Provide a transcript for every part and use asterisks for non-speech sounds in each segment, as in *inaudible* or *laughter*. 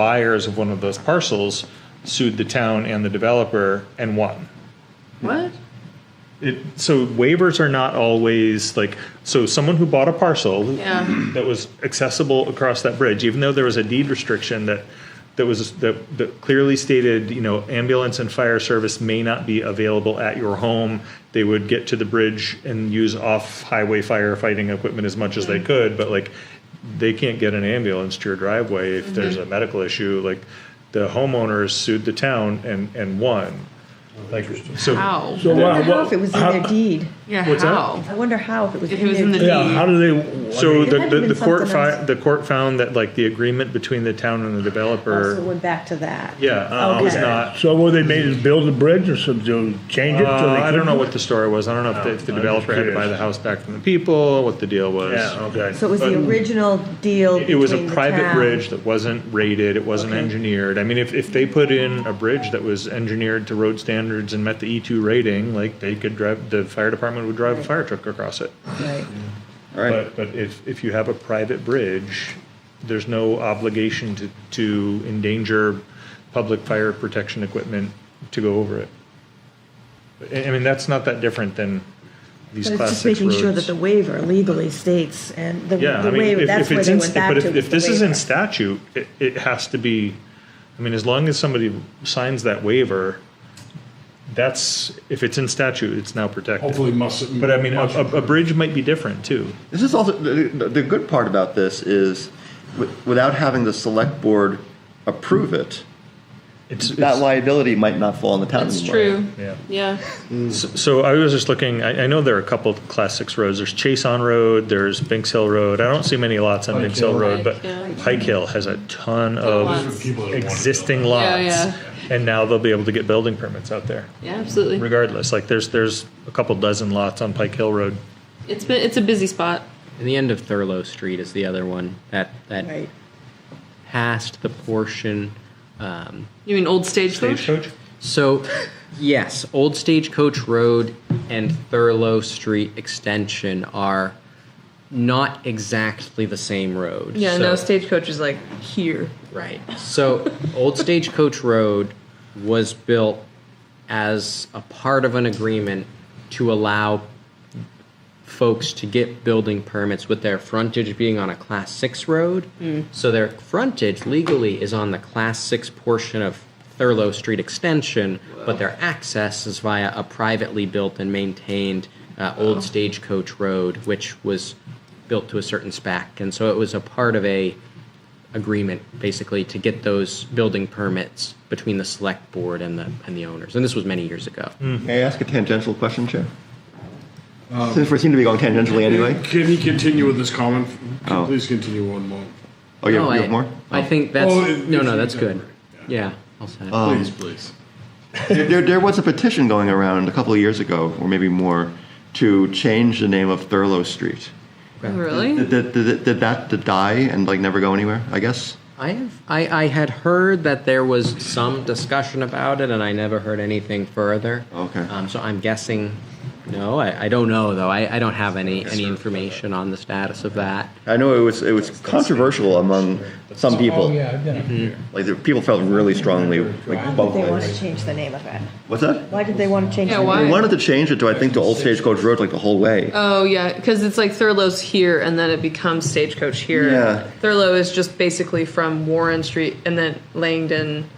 buyers of one of those parcels sued the town and the developer and won. What? It, so waivers are not always like so someone who bought a parcel Yeah. that was accessible across that bridge even though there was a deed restriction that that was that, that clearly stated you know ambulance and fire service may not be available at your home they would get to the bridge and use off highway firefighting equipment as much as they could but like they can't get an ambulance to your driveway Mm-hmm. if there's a medical issue like the homeowners sued the town and and won like so How? So I wow, wonder how what- if it was in how- their deed. Yeah, What's that? how? I wonder how if it was If in it was their in the deed. Yeah, how do they? So I mean, the, had the, been the court something fi- else. the court found that like the agreement between the town and the developer, Also went back to that. yeah, uh, was Okay. not. so what they made is build a bridge or some to change it. so Uh, they I don't couldn't- know what the story was. I don't know if, the, if the I'm developer had to buy curious. the house back from the people, what the deal was. Yeah. Okay. So it was the original deal. It was a between the private town. bridge that wasn't rated. It wasn't engineered. I mean, if, if they put in a bridge that was engineered to road standards and met the E two rating, like they could drive, the fire department would drive a fire truck across it. Right. All right. But, but if, if you have a private bridge, there's no obligation to, to endanger public fire protection equipment to go over it. I, I mean, that's not that different than these But it's class just six making sure that roads. the waiver legally states and the, Yeah, the I mean, waiver, if, that's if where it's they in, went back but if, to. if this is isn't in statute, it, it has to be, I mean, as long as somebody signs that waiver, that's, if it's in statute, it's now protected. Hopefully must. But I mean, a, a, a bridge might be different too. This is also the, the the good part about this is, wi- without having the select board approve it, It's, that it's, liability might not fall on the town. That's anymore. true. yeah. Yeah. So I was just looking, I, I know there are a couple of class six roads. There's Chase on Road, there's Binks Hill Road. I don't see many lots on Binks Hill Hill. Road, but Pike, yeah. Pike Hill has a ton lots. of People that want to existing Yeah, lots. yeah. And now they'll be able to get building permits out there Yeah, absolutely. regardless. Like there's, there's a couple dozen lots on Pike Hill Road. It's been it's a busy spot. And the end of Thurlow Street is the other one that that Right. past the portion. Um, You mean old stagecoach? Stagecoach? so, yes, Old Stagecoach Road and Thurlow Street Extension are not exactly the same road. Yeah, no, So- stagecoach is like here. Right. So, Old Stagecoach Road was built as a part of an agreement to allow folks to get building permits with their frontage being on a class six road. So their frontage legally is on the class six portion of Thurlow Street Extension, but their access is via a privately built and maintained uh, old stagecoach road, which was built to a certain spec. And so it was a part of a agreement basically to get those building permits between the select board and the and the owners. And this was many years ago. May I ask a tangential question, Chair? Since we seem to be going tangentially anyway. Can he continue with this comment? Oh. Please continue one more. Oh, Uh. you have, No, you I, have more? I think that's Oh, it- no, it's- no, that's it's good. over. Yeah, I'll say it. Please, please. there, there, there was a petition going around a couple of years ago, or maybe more, to change the name of Thurlow Street. Oh, Really? Did, did, did, did that to die and like never go anywhere? I guess. I have I, I had heard that there was some discussion about it, and I never heard anything further. Okay. Um, so I'm guessing. No, I, I don't know though. I, I don't have any any information on the status of that. I know it was it was controversial among some people. Oh, Like the people felt really strongly like both They want to ways. change the name of it. What's that? Why did they want to change Yeah, the name? why? They wanted to change it to I think to Old Stagecoach Road like the whole way. Oh yeah, because it's like Thurlow's here, and then it becomes stagecoach here. Yeah. Thurlow is just basically from Warren Street, and then Langdon,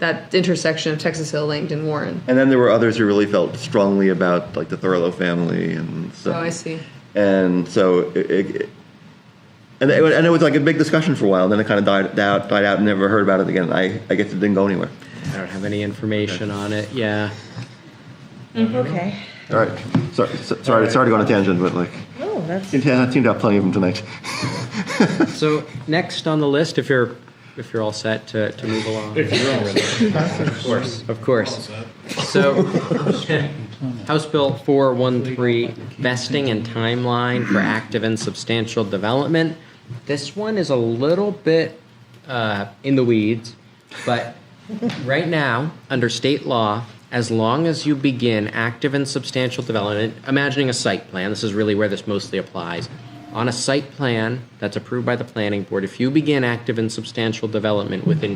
that intersection of Texas Hill, Langdon, Warren. And then there were others who really felt strongly about like the Thurlow family and stuff. Oh, I see. and so it, it, it- and, it, and it was like a big discussion for a while. Then it kind of died out, died out, and never heard about it again. I, I guess it didn't go anywhere. I don't have any information on it. Yeah. Okay. All right, sorry, so, sorry, sorry to go on a tangent, but like Oh, that's, I seem to have plenty of them tonight. So next on the list, if you're if you're all set to, to move along. Of course, of course. So, *laughs* House Bill 413, vesting and timeline for active and substantial development. This one is a little bit uh, in the weeds, but right now, under state law, as long as you begin active and substantial development, imagining a site plan, this is really where this mostly applies. on a site plan that's approved by the planning board, if you begin active and substantial development within